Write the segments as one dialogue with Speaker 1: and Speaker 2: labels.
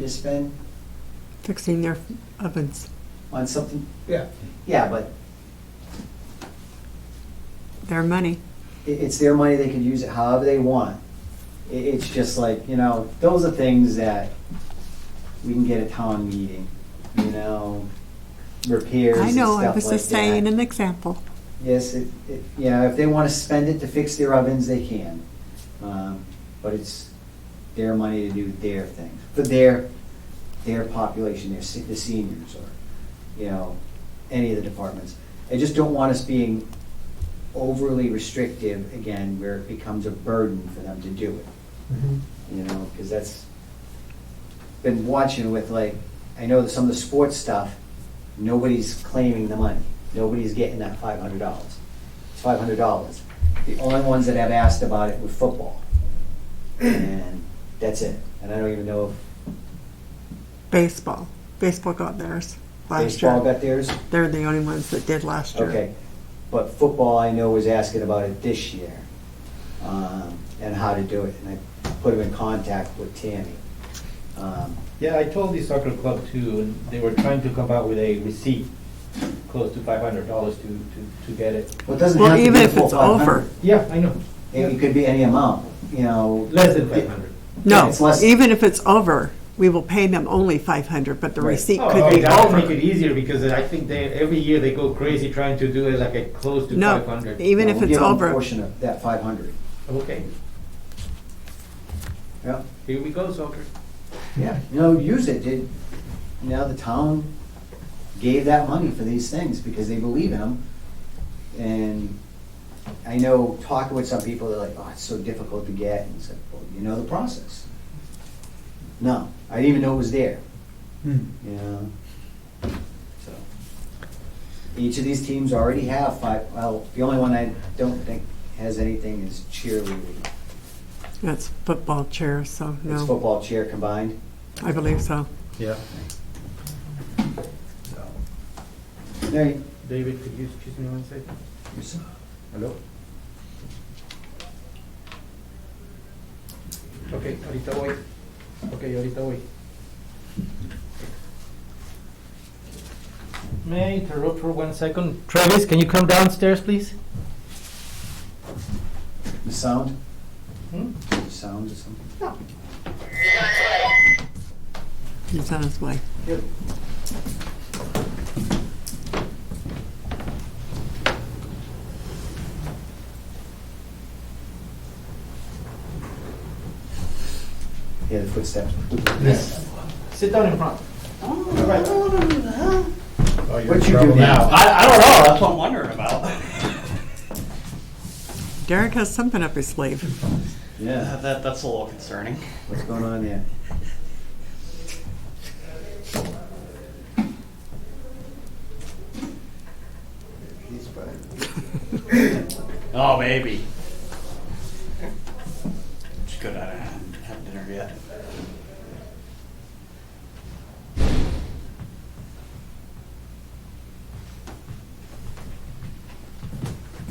Speaker 1: to spend
Speaker 2: fixing their ovens.
Speaker 1: on something?
Speaker 3: Yeah.
Speaker 1: Yeah, but
Speaker 2: Their money.
Speaker 1: it, it's their money, they can use it however they want. It, it's just like, you know, those are things that we can get at town meeting, you know, repairs
Speaker 2: I
Speaker 1: and
Speaker 2: know, I
Speaker 1: stuff
Speaker 2: was
Speaker 1: like
Speaker 2: just saying
Speaker 1: that.
Speaker 2: an example.
Speaker 1: Yes, it, it, yeah, if they wanna spend it to fix their ovens, they can. Um, but it's their money to do their thing, for their, their population, their, se- the seniors or, you know, any of the departments. I just don't want us being overly restrictive again where it becomes a burden for them to do it you know, because that's, been watching with like, I know that some of the sports stuff, nobody's claiming the money. Nobody's getting that five hundred dollars. It's five hundred dollars. The only ones that have asked about it were football. And that's it. And I don't even know
Speaker 2: Baseball. Baseball got theirs
Speaker 1: if
Speaker 2: last
Speaker 1: baseball
Speaker 2: year.
Speaker 1: got theirs.
Speaker 2: They're the only ones that did last year.
Speaker 1: Okay. But football, I know, was asking about it this year, um, and how to do it. And I put him in contact with Tammy. Um,
Speaker 3: Yeah, I told the soccer club too, and they were trying to come out with a receipt, close to five hundred dollars to, to, to get it.
Speaker 1: Well, it doesn't
Speaker 2: Well,
Speaker 1: have to
Speaker 2: even
Speaker 1: be
Speaker 2: if
Speaker 1: full
Speaker 2: it's
Speaker 1: 500.
Speaker 2: over.
Speaker 3: Yeah, I know.
Speaker 1: It it could be any amount, you know.
Speaker 3: Less than five hundred.
Speaker 2: No,
Speaker 1: It's less-
Speaker 2: even if it's over, we will pay them only five hundred, but the
Speaker 1: Right.
Speaker 2: receipt
Speaker 3: Oh,
Speaker 2: could
Speaker 3: okay,
Speaker 2: be
Speaker 3: that would make it
Speaker 2: over.
Speaker 3: easier because I think they, every year they go crazy trying to do it like a close to
Speaker 2: No,
Speaker 3: five hundred.
Speaker 2: even
Speaker 1: Well,
Speaker 2: if
Speaker 1: we'll
Speaker 2: it's
Speaker 1: give them a
Speaker 2: over.
Speaker 1: portion of that five hundred.
Speaker 3: Okay,
Speaker 1: Yeah,
Speaker 3: here we go, soccer.
Speaker 1: yeah. You know, use it, did, you know, the town gave that money for these things because they believe in them. And I know, talking with some people, they're like, oh, it's so difficult to get, and it's like, well, you know the process. No, I didn't even know it was there, you know? So, Each of these teams already have five, well, the only one I don't think has anything is cheerleading.
Speaker 2: That's football chairs, so
Speaker 1: It's
Speaker 2: no,
Speaker 1: football cheer combined.
Speaker 2: I believe so.
Speaker 3: Yeah.
Speaker 1: So, There you-
Speaker 3: David, could you excuse me one second? Hello? Okay, ahorita voy. Okay, ahorita voy. May I interrupt for one second? Travis, can you come downstairs, please?
Speaker 1: the sound,
Speaker 3: Hmm?
Speaker 1: the sound or something.
Speaker 2: He's on his way.
Speaker 1: Yeah, the footsteps.
Speaker 3: Yes. Sit down in front. Oh,
Speaker 1: What you do now?
Speaker 3: I, I don't know, that's what I'm wondering about.
Speaker 2: Derek has something up his sleeve.
Speaker 1: Yeah,
Speaker 4: That, that's a little concerning.
Speaker 1: what's going on there?
Speaker 4: Oh, maybe. It's good I haven't had dinner yet.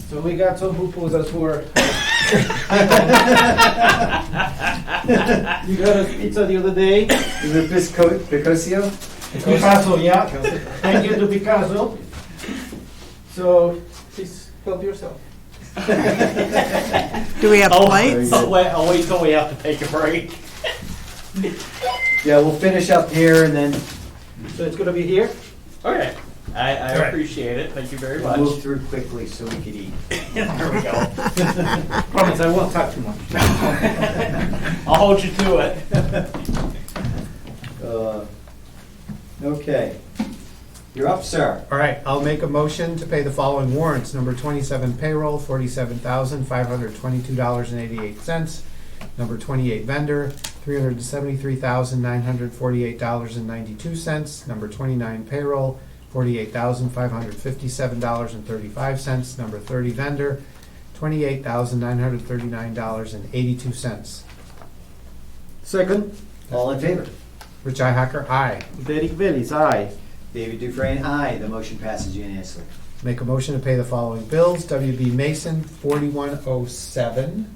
Speaker 3: So we got some hoopos as were. You got us pizza the other day.
Speaker 1: Is it Pisco, Picosio?
Speaker 3: Picasso, yeah. Thank you to Picasso. So please help yourself.
Speaker 2: Do we have
Speaker 3: Oh,
Speaker 4: I'll-
Speaker 2: plates?
Speaker 4: I'll Oh, wait, I'll wait till we have to take a break.
Speaker 1: Yeah, we'll finish up here and then
Speaker 3: So it's gonna be here?
Speaker 4: Okay. I, I
Speaker 3: All right.
Speaker 4: appreciate it. Thank you very
Speaker 1: we'll
Speaker 4: much.
Speaker 1: move through quickly so we could eat.
Speaker 4: there we go.
Speaker 3: Promise, I won't talk too much.
Speaker 4: I'll hold you to it.
Speaker 1: Uh, Okay. You're up, sir.
Speaker 5: All right, I'll make a motion to pay the following warrants. Number twenty-seven payroll, forty-seven thousand, five hundred twenty-two dollars and eighty-eight cents. Number twenty-eight vendor, three hundred seventy-three thousand, nine hundred forty-eight dollars and ninety-two cents. Number twenty-nine payroll, forty-eight thousand, five hundred fifty-seven dollars and thirty-five cents. Number thirty vendor, twenty-eight thousand, nine hundred thirty-nine dollars and eighty-two cents.
Speaker 3: Second,
Speaker 1: All in favor?
Speaker 5: Rich Hacker, aye.
Speaker 3: Derek Bellis, aye.
Speaker 1: David Dufresne, aye. The motion passes unanimously.
Speaker 5: Make a motion to pay the following bills. WB Mason, forty-one oh seven.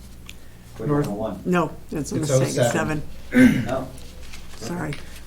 Speaker 1: Quick
Speaker 5: North-
Speaker 1: one.
Speaker 2: No, it's a
Speaker 5: It's
Speaker 3: oh
Speaker 2: mistake,
Speaker 5: 07.
Speaker 2: seven,
Speaker 1: No?
Speaker 2: sorry.